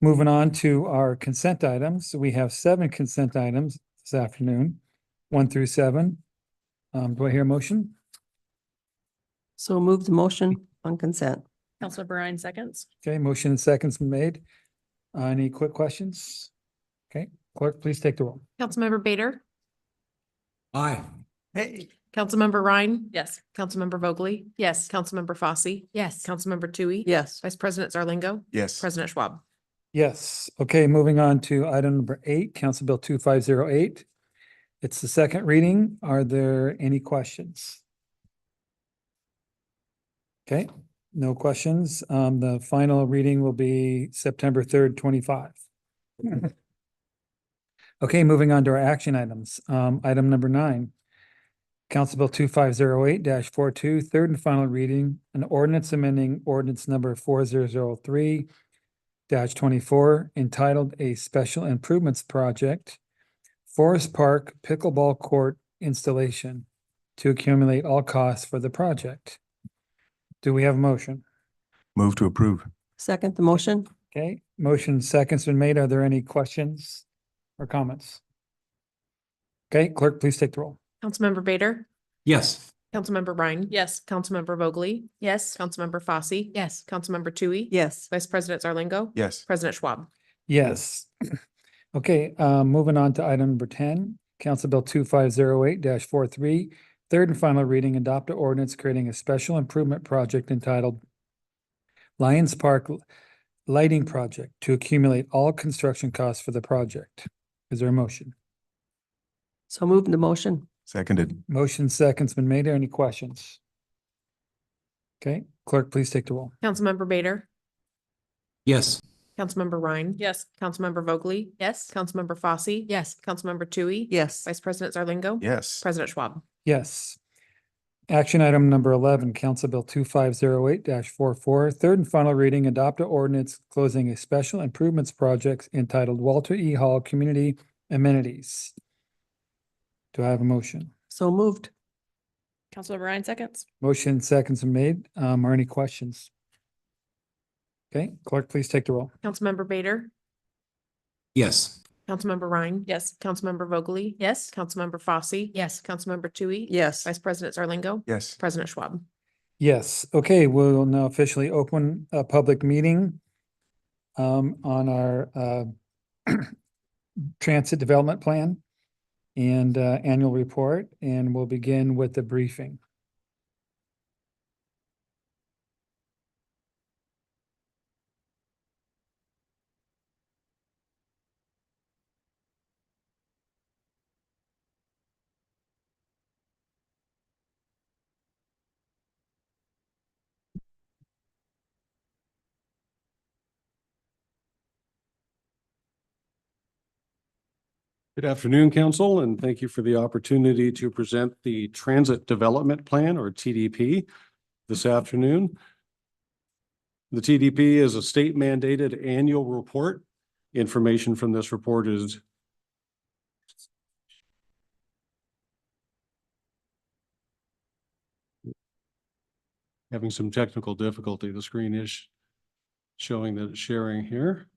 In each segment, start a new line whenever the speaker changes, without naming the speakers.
Moving on to our consent items, we have seven consent items this afternoon, one through seven. Um, do I hear a motion?
So move the motion on consent.
Counselor Brine seconds.
Okay, motion and seconds been made. Uh, Any quick questions? Okay, clerk, please take the roll.
Councilmember Bader,
Aye.
Councilmember Ryan,
Yes.
Councilmember Vogely,
Yes.
Councilmember Fosse,
Yes.
Councilmember Tui.
Yes.
Vice President Zarlingo,
Yes.
President Schwab.
Yes, okay, moving on to item number eight, Council Bill two five zero eight. It's the second reading. Are there any questions? Okay, no questions. Um, the final reading will be September third, twenty-five. Okay, moving on to our action items. Um, item number nine. Council Bill two five zero eight 42 third and final reading, an ordinance amending ordinance number four zero zero three dash twenty-four entitled A Special Improvements Project, Forest Park Pickleball Court Installation to accumulate all costs for the project. Do we have a motion?
Move to approve.
Second the motion?
Okay, motion seconds been made. Are there any questions or comments? Okay, clerk, please take the roll.
Councilmember Bader,
Yes.
Councilmember Ryan.
Yes.
Councilmember Vogely,
Yes.
Councilmember Fosse.
Yes.
Councilmember Tui.
Yes.
Vice President Zarlingo.
Yes.
President Schwab.
Yes. Okay, uh, moving on to item number ten, Council Bill two five zero eight 43 Third and final reading, adopt a ordinance creating a special improvement project entitled Lions Park Lighting Project to accumulate all construction costs for the project. Is there a motion?
So move the motion?
Seconded.
Motion second's been made. Are any questions? Okay, clerk, please take the roll.
Councilmember Bader,
Yes.
Councilmember Ryan.
Yes.
Councilmember Vogely,
Yes.
Councilmember Fosse.
Yes.
Councilmember Tui.
Yes.
Vice President Zarlingo.
Yes.
President Schwab.
Yes. Action item number eleven, Council Bill two five zero eight 44 Third and final reading, adopt a ordinance closing a special improvements project entitled Walter E. Hall Community Amenities. Do I have a motion?
So moved?
Counselor Brine seconds.
Motion seconds are made. Um, are any questions? Okay, clerk, please take the roll.
Councilmember Bader,
Yes.
Councilmember Ryan.
Yes.
Councilmember Vogely.
Yes.
Councilmember Fosse.
Yes.
Councilmember Tui.
Yes.
Vice President Zarlingo.
Yes.
President Schwab.
Yes, okay, we will now officially open a public meeting um, on our uh, transit development plan and uh, annual report, and we'll begin with the briefing.
Good afternoon, Council, and thank you for the opportunity to present the Transit Development Plan, or TDP, this afternoon. The TDP is a state mandated annual report. Information from this report is having some technical difficulty. The screen is showing that it's sharing here.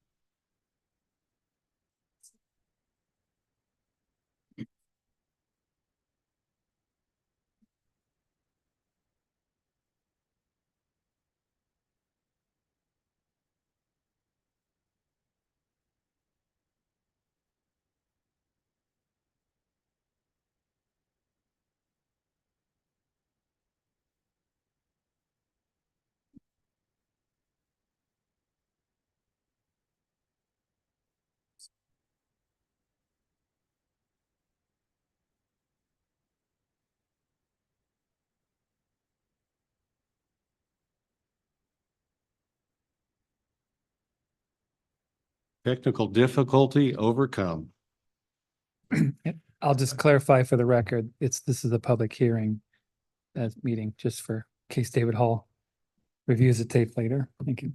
Technical difficulty overcome.
I'll just clarify for the record, it's, this is a public hearing uh, meeting, just for case David Hall reviews the tape later. Thank you.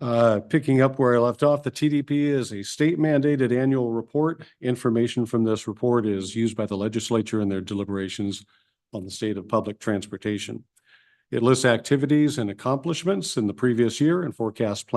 Uh, picking up where I left off, the TDP is a state mandated annual report. Information from this report is used by the legislature in their deliberations on the state of public transportation. It lists activities and accomplishments in the previous year and forecasts plans